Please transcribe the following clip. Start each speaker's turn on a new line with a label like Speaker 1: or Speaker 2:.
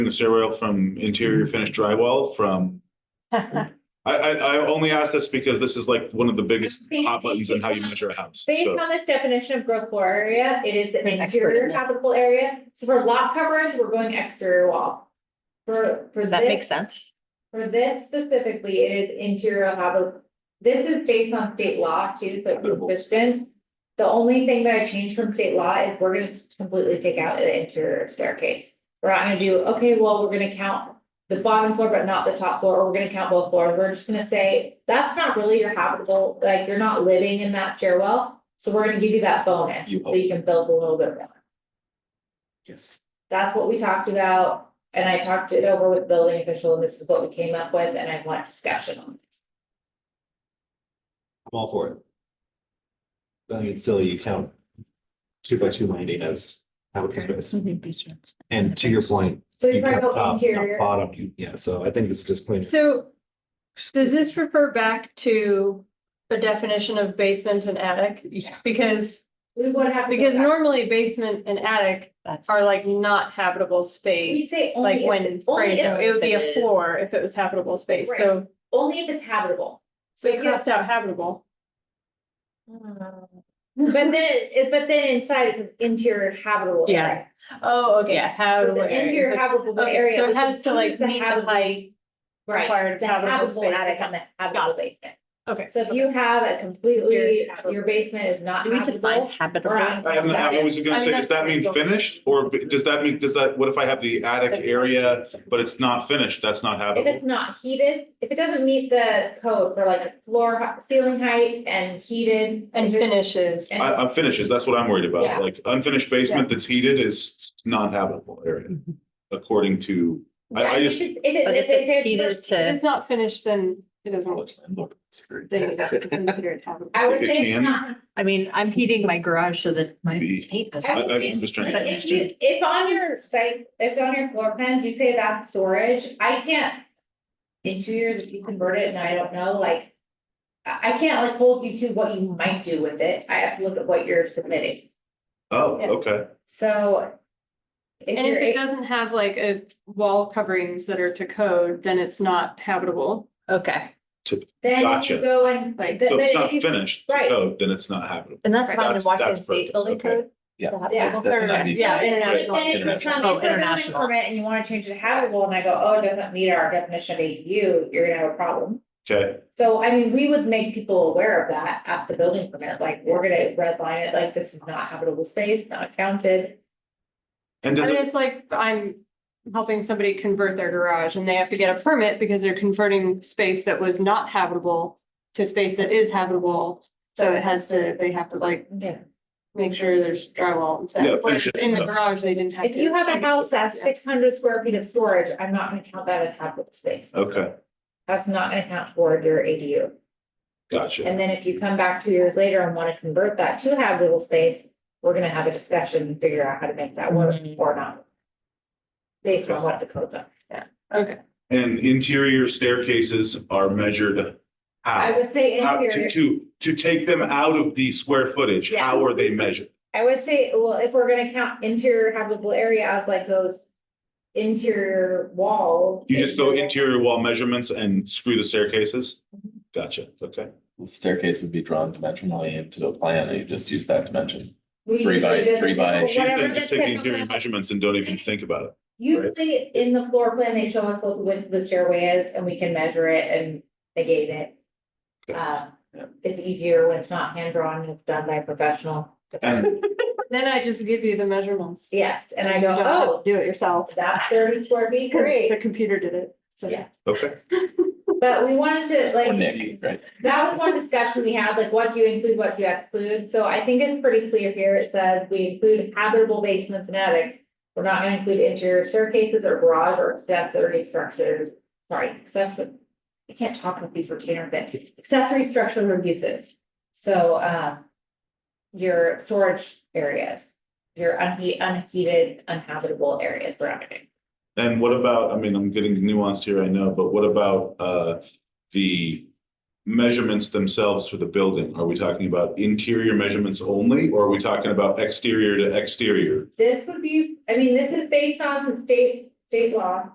Speaker 1: the stairwell from interior
Speaker 2: Mm-hmm.
Speaker 1: finished drywall from, I, I, I only ask this because this is like one of the biggest hot buttons in how you measure a house.
Speaker 2: Based
Speaker 1: So
Speaker 2: on this definition of gross floor area, it is an
Speaker 3: An expert
Speaker 2: interior
Speaker 3: in it.
Speaker 2: habitable area. So for lot coverage, we're going exterior wall. For, for
Speaker 3: That makes
Speaker 2: this,
Speaker 3: sense.
Speaker 2: for this specifically, it is interior habitable. This is based on state law too, so it's
Speaker 1: Habitable.
Speaker 2: consistent. The only thing that I changed from state law is we're gonna completely take out the interior staircase. We're not gonna do, okay, well, we're gonna count the bottom floor, but not the top floor, or we're gonna count both floors. We're just gonna say, that's not really your habitable, like, you're not living in that stairwell. So we're gonna give you that bonus,
Speaker 1: You
Speaker 2: so you can build a little bit more.
Speaker 4: Yes.
Speaker 2: That's what we talked about, and I talked it over with building official, and this is what we came up with, and I want discussion on this.
Speaker 4: I'm all for it. I mean, silly, you count two by two landing as how it compares. And to your point,
Speaker 2: So
Speaker 4: you
Speaker 2: you probably
Speaker 4: count
Speaker 2: go
Speaker 4: top, not
Speaker 2: interior,
Speaker 4: bottom, you- yeah, so I think this is just clean.
Speaker 5: So does this refer back to the definition of basement and attic?
Speaker 3: Yeah.
Speaker 5: Because,
Speaker 2: we would have. to go
Speaker 5: because
Speaker 2: back.
Speaker 5: normally basement and attic
Speaker 3: That's.
Speaker 5: are like not habitable
Speaker 2: We
Speaker 5: space.
Speaker 2: say only,
Speaker 5: Like
Speaker 2: if-
Speaker 5: when,
Speaker 2: only
Speaker 5: phrased,
Speaker 2: if-
Speaker 5: it would be
Speaker 3: if it
Speaker 5: a
Speaker 3: is-
Speaker 5: floor if it was habitable space, so
Speaker 2: only if it's habitable.
Speaker 5: they
Speaker 2: But you-
Speaker 5: crossed out habitable.
Speaker 2: But then, it- it- but then inside it's an interior habitable
Speaker 3: Yeah.
Speaker 2: area.
Speaker 5: Oh, okay,
Speaker 3: Yeah.
Speaker 2: So
Speaker 5: habitable
Speaker 2: the interior
Speaker 5: area.
Speaker 2: habitable
Speaker 5: Okay,
Speaker 2: area.
Speaker 5: So
Speaker 2: we
Speaker 5: it has to like
Speaker 2: choose the
Speaker 5: meet the
Speaker 2: habitable-
Speaker 5: height
Speaker 2: Right,
Speaker 5: required
Speaker 2: the
Speaker 5: habitable
Speaker 2: habitable
Speaker 5: space.
Speaker 2: attic on the habitable basement.
Speaker 5: Okay.
Speaker 2: So if you have a completely,
Speaker 5: Interior habitable.
Speaker 2: your basement is not
Speaker 3: Do we define
Speaker 2: habitable.
Speaker 3: habitable?
Speaker 1: I don't know, I was gonna say, does that mean finished or b- does that mean, does that, what if I have the attic area, but it's not finished? That's not
Speaker 2: If it's
Speaker 1: habitable.
Speaker 2: not heated, if it doesn't meet the code for like floor, hei- ceiling height and heated.
Speaker 5: And finishes.
Speaker 1: I, I'm finishes, that's what I'm worried
Speaker 2: Yeah.
Speaker 1: about. Like unfinished basement that's heated is not habitable area
Speaker 2: Mm-hmm.
Speaker 1: according to, I,
Speaker 2: Yeah,
Speaker 1: I
Speaker 2: you
Speaker 1: just,
Speaker 2: should- If it,
Speaker 3: But
Speaker 2: if
Speaker 3: if
Speaker 2: it.
Speaker 3: it's heated
Speaker 5: If
Speaker 3: to,
Speaker 5: it's not finished, then it doesn't. Then it's
Speaker 4: It's
Speaker 5: considered habitable.
Speaker 2: I would
Speaker 1: If it
Speaker 2: say it's
Speaker 1: can.
Speaker 2: not.
Speaker 3: I mean, I'm heating my garage so that my
Speaker 1: Be-
Speaker 3: paint doesn't.
Speaker 2: I
Speaker 1: I- I'm
Speaker 2: would
Speaker 1: just trying
Speaker 2: say,
Speaker 1: to
Speaker 2: If you-
Speaker 1: understand.
Speaker 2: if on your site, if on your floor plans, you say that's storage, I can't. In two years, if you convert it and I don't know, like. I, I can't like hold you to what you might do with it. I have to look at what you're submitting,
Speaker 1: oh, okay.
Speaker 2: so. if
Speaker 5: And if
Speaker 2: you're
Speaker 5: it
Speaker 2: a-
Speaker 5: doesn't have like a wall coverings that are to code, then it's not habitable.
Speaker 3: Okay,
Speaker 2: Then
Speaker 1: Gotcha.
Speaker 2: you go and.
Speaker 5: Like-
Speaker 2: th-
Speaker 1: So if
Speaker 2: then
Speaker 1: it's not
Speaker 2: if you-
Speaker 1: finished,
Speaker 2: right.
Speaker 1: code, then it's not habitable.
Speaker 3: and that's fine in
Speaker 1: That's-
Speaker 3: Washington
Speaker 1: that's perfect,
Speaker 3: State building
Speaker 1: okay.
Speaker 3: code?
Speaker 4: Yeah.
Speaker 3: The
Speaker 2: Yeah.
Speaker 3: habitable-
Speaker 4: That's an
Speaker 5: Or-
Speaker 4: IBC.
Speaker 5: Yeah,
Speaker 2: But
Speaker 5: international.
Speaker 2: then if you come
Speaker 3: Oh,
Speaker 2: in for a building
Speaker 3: international.
Speaker 2: permit and you wanna change it to habitable and I go, oh, it doesn't meet our definition of ADU, you're gonna have a problem.
Speaker 1: Okay,
Speaker 2: So I mean, we would make people aware of that at the building permit, like, we're gonna redline it, like, this is not habitable space, not counted.
Speaker 1: and
Speaker 5: I
Speaker 1: does
Speaker 5: mean,
Speaker 1: it,
Speaker 5: it's like I'm helping somebody convert their garage and they have to get a permit because they're converting space that was not habitable to space that is habitable. So it has to, they have to like
Speaker 2: Yeah.
Speaker 5: make sure there's drywall and stuff.
Speaker 1: Yeah,
Speaker 5: Whereas
Speaker 1: finish it.
Speaker 5: In the garage, they didn't have.
Speaker 2: If you have a house that's
Speaker 5: Yeah.
Speaker 2: six hundred square feet of storage, I'm not gonna count that as habitable space.
Speaker 1: okay,
Speaker 2: That's not gonna count toward your ADU.
Speaker 1: gotcha.
Speaker 2: And then if you come back two years later and wanna convert that to habitable space, we're gonna have a discussion and figure out how to make that work
Speaker 3: Mhm.
Speaker 2: or not. Based on what the codes are.
Speaker 5: Okay,
Speaker 1: And interior staircases are measured
Speaker 2: I
Speaker 1: how?
Speaker 2: would say
Speaker 1: How-
Speaker 2: interior.
Speaker 1: Uh, to, to, to take them out of the square footage,
Speaker 2: Yeah.
Speaker 1: how are they measured?
Speaker 2: I would say, well, if we're gonna count interior habitable area as like those interior wall.
Speaker 1: You just go interior wall measurements and screw the staircases?
Speaker 2: Mm-hmm.
Speaker 1: Gotcha, okay.
Speaker 6: The staircase would be drawn dimensionally into the plan, and you just use that dimension.
Speaker 2: We
Speaker 6: three by-
Speaker 2: usually do the
Speaker 6: three by-
Speaker 2: typical-
Speaker 1: She's
Speaker 2: whatever
Speaker 1: saying
Speaker 2: the
Speaker 1: just take the interior
Speaker 2: typical-
Speaker 1: measurements and don't even think about it.
Speaker 2: Usually in the floor plan, they show us what the width of the stairway is and we can measure it and negate it.
Speaker 1: Okay.
Speaker 2: Uh,
Speaker 6: Yeah.
Speaker 2: it's easier when it's not hand drawn, it's done by a professional.
Speaker 1: And
Speaker 5: then I just give you the measurements.
Speaker 2: Yes, and I
Speaker 5: You
Speaker 2: go,
Speaker 5: don't have to
Speaker 2: oh,
Speaker 5: Do it yourself.
Speaker 2: that's thirty square feet,
Speaker 5: Because the
Speaker 2: great.
Speaker 5: computer did it, so.
Speaker 2: Yeah.
Speaker 1: okay,
Speaker 2: But we wanted to like.
Speaker 6: Or Nick, right?
Speaker 2: That was one discussion we had, like what do you include, what do you exclude? So I think it's pretty clear here. It says we include habitable basements and attics. We're not gonna include interior staircases or garage or accessory structures, sorry, accessory. I can't talk with these retainer bit, accessory structures or uses. So, uh. Your storage areas, your unhe- unheated, unhabitable areas, we're not gonna.
Speaker 1: and what about, I mean, I'm getting nuanced here, I know, but what about, uh, the measurements themselves for the building? Are we talking about interior measurements only, or are we talking about exterior to exterior?
Speaker 2: This would be, I mean, this is based on state state law.